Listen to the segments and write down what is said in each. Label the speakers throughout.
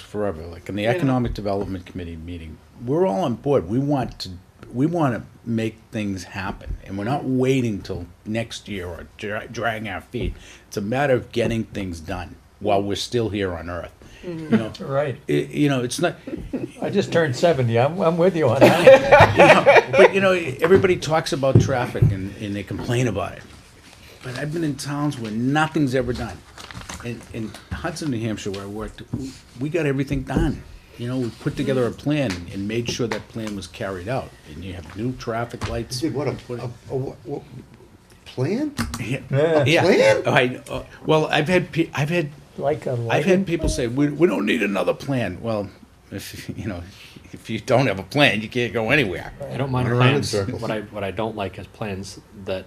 Speaker 1: forever, like in the Economic Development Committee meeting, we're all on board. We want to, we want to make things happen, and we're not waiting till next year or dra- dragging our feet. It's a matter of getting things done while we're still here on Earth. You know,
Speaker 2: Right.
Speaker 1: it, you know, it's not.
Speaker 2: I just turned seventy. I'm, I'm with you on that.
Speaker 1: but you know, everybody talks about traffic and, and they complain about it. But I've been in towns where nothing's ever done. In, in Hudson, New Hampshire, where I worked, we- we got everything done. You know, we put together a plan and made sure that plan was carried out. And you have new traffic lights.
Speaker 3: Did what, a, a, a what, what, plan?
Speaker 1: Yeah.
Speaker 3: plan?
Speaker 1: I, uh, well, I've had, pe- I've had
Speaker 2: Like a
Speaker 1: I've had
Speaker 2: lighting.
Speaker 1: people say, we, we don't need another plan. Well, if, you know, if you don't have a plan, you can't go anywhere.
Speaker 4: I don't mind
Speaker 3: Run around in
Speaker 4: plans.
Speaker 3: circles.
Speaker 4: What I what I don't like is plans that.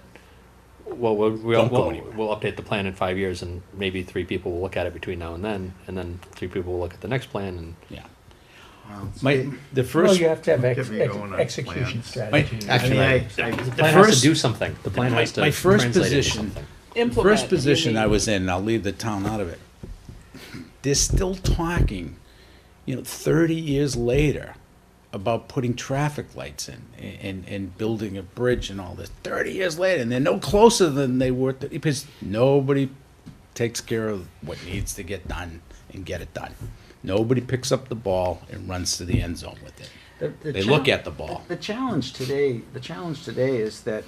Speaker 4: Well, we'll we'll,
Speaker 1: Don't go
Speaker 4: we'll,
Speaker 1: anywhere.
Speaker 4: we'll update the plan in five years, and maybe three people will look at it between now and then, and then three people will look at the next plan, and
Speaker 1: Yeah.
Speaker 5: Wow.
Speaker 1: My, the
Speaker 2: Well,
Speaker 1: first,
Speaker 2: you have to have ex-
Speaker 5: Get me
Speaker 2: ex-
Speaker 5: going on
Speaker 2: execution
Speaker 5: plans.
Speaker 2: strategy.
Speaker 5: I mean,
Speaker 1: actually,
Speaker 5: I,
Speaker 4: the
Speaker 5: I,
Speaker 4: plan has
Speaker 1: first-
Speaker 4: to do something. The plan
Speaker 1: my,
Speaker 4: has to
Speaker 1: my first
Speaker 4: translate into
Speaker 1: position,
Speaker 4: something.
Speaker 6: Implement.
Speaker 1: first
Speaker 6: and you
Speaker 1: position I
Speaker 6: mean-
Speaker 1: was in, I'll leave the town out of it. They're still talking, you know, thirty years later about putting traffic lights in and, and building a bridge and all this. Thirty years later, and they're no closer than they were, th- because nobody takes care of what needs to get done and get it done. Nobody picks up the ball and runs to the end zone with it.
Speaker 7: The- the
Speaker 1: They
Speaker 7: chal-
Speaker 1: look at the ball.
Speaker 7: The challenge today, the challenge today is that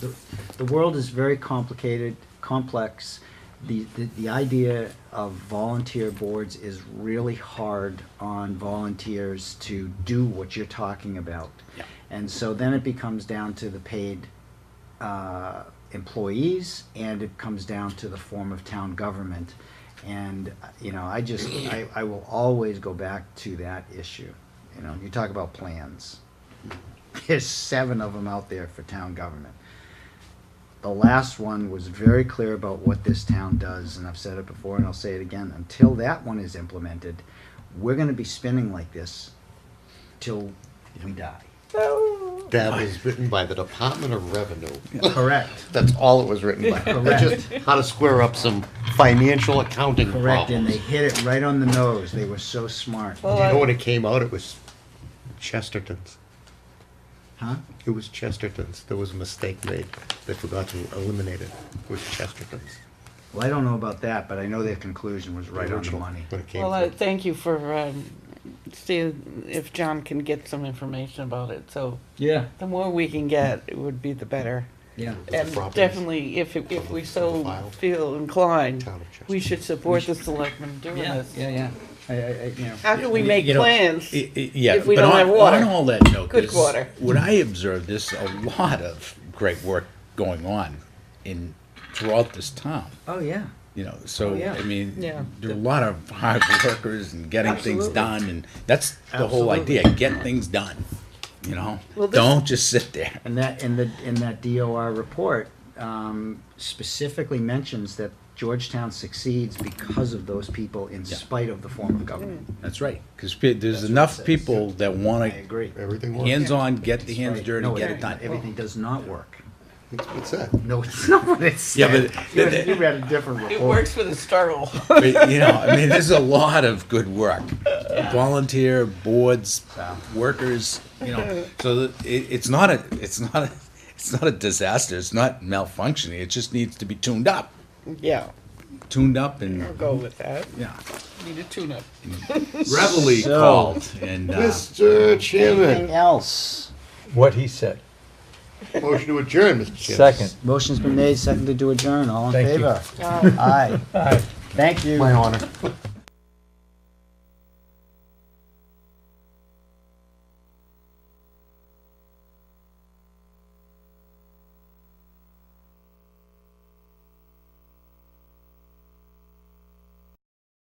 Speaker 7: the, the world is very complicated, complex. The, the, the idea of volunteer boards is really hard on volunteers to do what you're talking about.
Speaker 1: Yeah.
Speaker 7: And so then it becomes down to the paid uh, employees and it comes down to the form of town government. And, uh, you know, I just, I, I will always go back to that issue. You know, you talk about plans. There's seven of them out there for town government. The last one was very clear about what this town does, and I've said it before and I'll say it again. Until that one is implemented, we're gonna be spinning like this till we die.
Speaker 3: That was written by the Department of Revenue.
Speaker 7: Correct.
Speaker 3: That's all it was written by.
Speaker 7: Correct.
Speaker 3: It's just how to square up some financial accounting
Speaker 7: Correct, and they
Speaker 3: problems.
Speaker 7: hit it right on the nose. They were so smart.
Speaker 3: You
Speaker 6: Well,
Speaker 3: know
Speaker 6: I-
Speaker 3: when it came out, it was Chesterton's.
Speaker 7: Huh?
Speaker 3: It was Chesterton's. There was a mistake made. They forgot to eliminate it. It was Chesterton's.
Speaker 7: Well, I don't know about that, but I know their conclusion was right on the
Speaker 3: original,
Speaker 7: money.
Speaker 3: When it came
Speaker 6: Well, I
Speaker 3: through.
Speaker 6: thank you for, um, see if John can get some information about it, so
Speaker 2: Yeah.
Speaker 6: the more we can get, it would be the better.
Speaker 7: Yeah.
Speaker 3: With the
Speaker 6: And
Speaker 3: properties.
Speaker 6: definitely, if, it- if we
Speaker 3: Of the
Speaker 6: so
Speaker 3: file.
Speaker 6: feel inclined,
Speaker 3: Town of Chester.
Speaker 6: we should support the selectmen doing
Speaker 7: Yeah,
Speaker 6: this.
Speaker 7: yeah, yeah. I, I, I, you know.
Speaker 6: How can we make
Speaker 1: You know,
Speaker 6: plans?
Speaker 1: I- I- Yeah.
Speaker 6: if we
Speaker 1: but
Speaker 6: don't
Speaker 1: on-
Speaker 6: have water?
Speaker 1: On all that note,
Speaker 6: Good
Speaker 1: there's-
Speaker 6: water.
Speaker 1: What I observed, there's a lot of great work going on in, throughout this town,
Speaker 7: Oh, yeah.
Speaker 1: you know, so,
Speaker 7: Oh, yeah.
Speaker 1: I mean,
Speaker 6: Yeah.
Speaker 1: there are a lot of hard workers and getting things
Speaker 7: Absolutely.
Speaker 1: done, and that's the whole
Speaker 7: Absolutely.
Speaker 1: idea, get things done, you know?
Speaker 6: Well, this-
Speaker 1: Don't just sit there.
Speaker 7: And that, in the, in that DOR report, um, specifically mentions that Georgetown succeeds because of those people in
Speaker 1: Yeah. Mm.
Speaker 7: spite of the form of government.
Speaker 1: That's right, because there's
Speaker 7: That's what it
Speaker 1: enough
Speaker 7: says.
Speaker 1: people that
Speaker 7: I
Speaker 1: want to,
Speaker 7: agree.
Speaker 3: Everything worked.
Speaker 1: hands-on, get the hands
Speaker 7: Right.
Speaker 1: dirty,
Speaker 7: No,
Speaker 1: get it done.
Speaker 7: Everything does not work.
Speaker 3: What's that?
Speaker 7: No, it's not what it said.
Speaker 1: Yeah, but
Speaker 7: You
Speaker 1: the- the-
Speaker 7: you read a different report.
Speaker 6: It works with a struggle.
Speaker 1: But, you know, I mean, there's a lot of good work. Volunteer boards, uh, workers, you know, so that it, it's not a, it's not a, it's not a disaster. It's not malfunctioning. It just needs to be tuned up,
Speaker 6: Yeah,
Speaker 1: tuned up, and
Speaker 6: I'll go with that.
Speaker 1: yeah,
Speaker 6: Need a tune-up.
Speaker 1: reveille
Speaker 7: So-
Speaker 1: called and uh,
Speaker 3: Mr.
Speaker 7: Anything
Speaker 3: Chairman,
Speaker 7: else?
Speaker 2: What he said.
Speaker 3: motion to adjourn, Mr. Chairman.
Speaker 2: Second.
Speaker 7: Motion's been made, seconded to adjourn, all in
Speaker 2: Thank you.
Speaker 7: favor?
Speaker 6: Oh.
Speaker 7: Aye.
Speaker 2: Aye.
Speaker 7: Thank you.
Speaker 3: My honor.